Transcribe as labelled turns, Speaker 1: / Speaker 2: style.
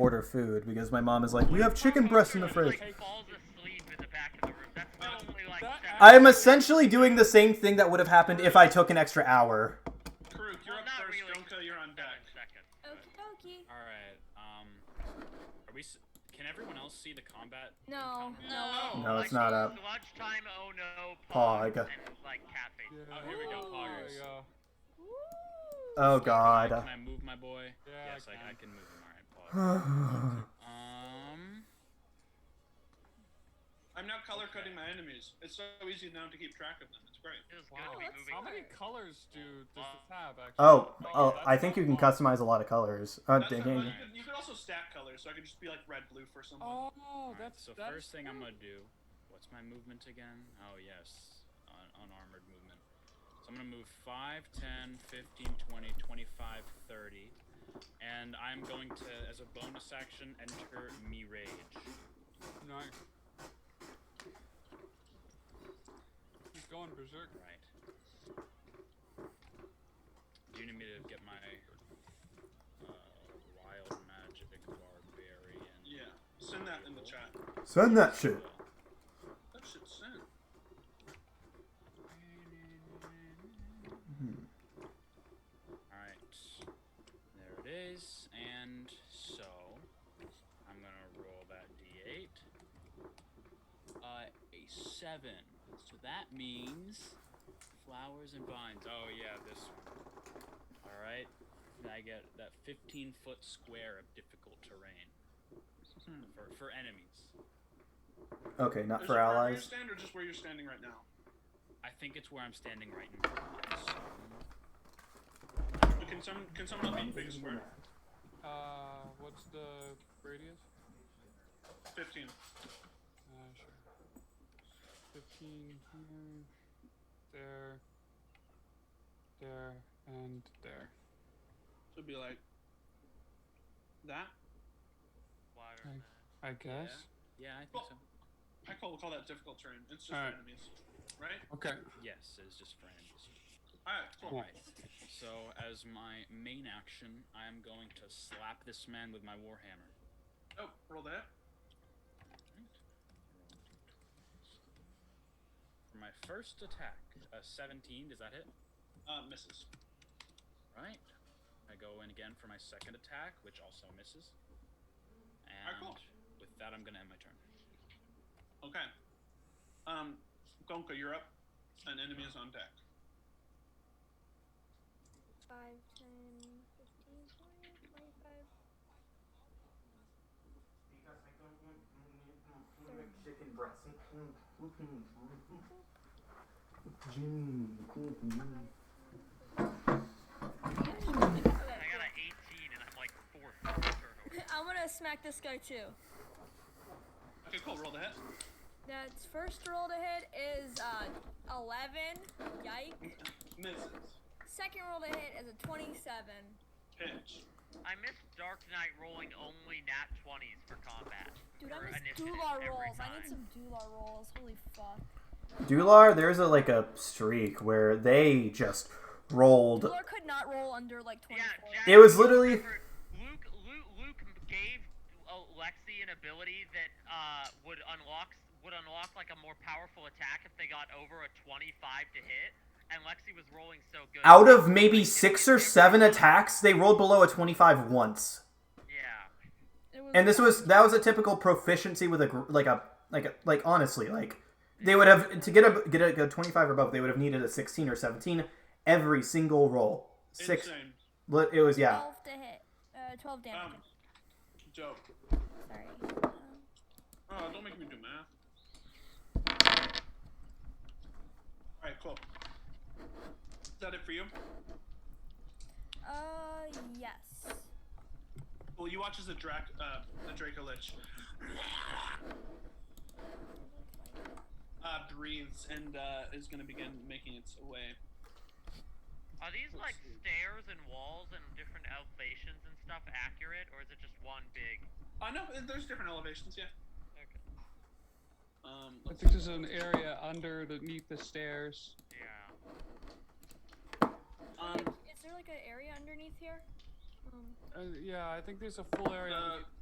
Speaker 1: order food because my mom is like, we have chicken breasts in the fridge.
Speaker 2: Like, falls asleep in the back of the room. That's literally like.
Speaker 3: that
Speaker 2: seven-
Speaker 1: I am essentially doing the same thing that would have happened if I took an extra hour.
Speaker 4: Karuk, you're
Speaker 2: well,
Speaker 4: up
Speaker 2: not
Speaker 4: first.
Speaker 2: really.
Speaker 4: Donka, you're on deck.
Speaker 2: Seven seconds.
Speaker 5: Okie dokie.
Speaker 3: All right. Um, are we? s- Can everyone else see the combat?
Speaker 5: No,
Speaker 2: No, Oh,
Speaker 5: no.
Speaker 1: No, it's not up.
Speaker 2: Lunchtime, oh no,
Speaker 1: Pog.
Speaker 2: pog, and like caffeine.
Speaker 3: Oh, here we go.
Speaker 5: Ooh.
Speaker 3: Poggers.
Speaker 4: There you go.
Speaker 1: Oh
Speaker 3: Can
Speaker 1: god.
Speaker 3: I move my boy?
Speaker 4: Yeah,
Speaker 3: yes,
Speaker 4: I
Speaker 3: I, I
Speaker 4: can.
Speaker 3: can move him. All right,
Speaker 1: I
Speaker 3: Pog. um.
Speaker 4: I'm now color coding my enemies. It's so easy now to keep track of them. It's great.
Speaker 2: This is
Speaker 6: Wow.
Speaker 2: gonna be
Speaker 5: that's
Speaker 2: moving.
Speaker 6: How many colors do does this have actually?
Speaker 1: Oh,
Speaker 6: Like,
Speaker 1: oh,
Speaker 6: that's
Speaker 1: I think you can
Speaker 6: not-
Speaker 1: customize a lot of colors. Uh,
Speaker 4: That's
Speaker 1: dang.
Speaker 4: not bad. you, could, you could also stack colors, so I could just be like red, blue for someone.
Speaker 6: Oh,
Speaker 3: Alright,
Speaker 6: that's
Speaker 3: so
Speaker 6: that's
Speaker 3: first thing I'm gonna do. What's my movement again? Oh yes, un- unarmored movement. So I'm gonna move 5, 10, 15, 20, 25, 30, and I'm going to, as a bonus action, enter me rage.
Speaker 6: nice. He's going berserk.
Speaker 3: Right. Do you need me to get my uh, wild magic barbarian?
Speaker 4: Yeah. Send that in the chat.
Speaker 1: Send that shit.
Speaker 4: That shit sent.
Speaker 3: Alright. There it is. And so I'm gonna roll that D8. Uh a seven. So that means flowers and vines. Oh yeah, this one. Alright. And I get that fifteen foot square of difficult terrain. For for enemies.
Speaker 1: Okay, not
Speaker 4: Is
Speaker 1: for
Speaker 4: it wherever you
Speaker 1: allies.
Speaker 4: stand or just where you're standing right now?
Speaker 3: I think it's where I'm standing right now. Yes.
Speaker 4: Can, some, can someone help me pick a square?
Speaker 6: Uh, what's the radius?
Speaker 4: 15.
Speaker 6: Uh, sure. Fifteen here, there, there, and there.
Speaker 4: So it'd be like. That?
Speaker 2: Water.
Speaker 6: Right. I guess.
Speaker 3: Yeah, I think
Speaker 4: Well-
Speaker 3: so.
Speaker 4: I call, call that difficult terrain. It's just
Speaker 6: Alright.
Speaker 4: for enemies. Right?
Speaker 6: Okay.
Speaker 3: Yes, it is just for enemies.
Speaker 4: Alright, cool.
Speaker 6: Cool.
Speaker 3: So, as my main action, I am going to slap this man with my warhammer.
Speaker 4: Oh, roll that.
Speaker 3: For my first attack, a 17, does that hit?
Speaker 4: Uh, misses.
Speaker 3: Right. I go in again for my second attack, which also misses. And
Speaker 4: Alright, cool.
Speaker 3: with that, I'm going to end my turn.
Speaker 4: Okay. Um, Gonka, you're up. An enemy is on deck.
Speaker 5: 5, 10, 15, 20, 25.
Speaker 2: I got an 18 and I'm like fourth turnover.
Speaker 5: I want to smack this guy too.
Speaker 4: Okay, cool. Roll the hit.
Speaker 5: That's first roll to hit is uh, 11. Yike.
Speaker 4: Misses.
Speaker 5: Second roll to hit is a 27.
Speaker 4: Pitch.
Speaker 2: I miss Dark Knight rolling only nat 20s for combat.
Speaker 5: Dude,
Speaker 2: for
Speaker 5: I miss
Speaker 2: initiative
Speaker 5: Dular
Speaker 2: every
Speaker 5: rolls. I
Speaker 2: time.
Speaker 5: need some Dular rolls. Holy fuck.
Speaker 1: Dular, there's a like a streak where they just rolled.
Speaker 5: Dular could not roll under like 24.
Speaker 2: Yeah, Jack,
Speaker 1: It was
Speaker 2: you
Speaker 1: literally-
Speaker 2: remember Luke, Luke. Luke gave uh, Lexi an ability that uh, would unlock would unlock like a more powerful attack if they got over a 25 to hit. And Lexi was rolling so good.
Speaker 1: Out of maybe six or seven attacks, they rolled below a 25 once.
Speaker 2: Yeah.
Speaker 5: It was
Speaker 1: And this was that was a typical proficiency with a gr- like a like a, like honestly like they would have to get a get a, a 25 or above they would have needed a 16 or 17 every single roll. Six.
Speaker 4: Insane.
Speaker 1: li- It was yeah.
Speaker 5: 12 to hit. Uh, 12 damage.
Speaker 4: Um, dope.
Speaker 5: Sorry. Um,
Speaker 4: Oh, don't make me do math. Alright, cool. Is that it for you?
Speaker 5: Uh, yes.
Speaker 4: Well, you watch as the Drac, uh, the Draco Lich, uh, breathes and, uh, is gonna begin making its way.
Speaker 2: Are these like stairs and walls and different elevations and stuff accurate, or is it just one big?
Speaker 4: Uh, no, there's different elevations, yeah.
Speaker 2: Okay.
Speaker 4: Um,
Speaker 6: I
Speaker 4: let's
Speaker 6: think there's an area under underneath the stairs.
Speaker 2: Yeah.
Speaker 4: um,
Speaker 5: Is there like an area underneath here? Um,
Speaker 6: Uh, yeah, I think there's a full area.
Speaker 4: the,
Speaker 6: underneath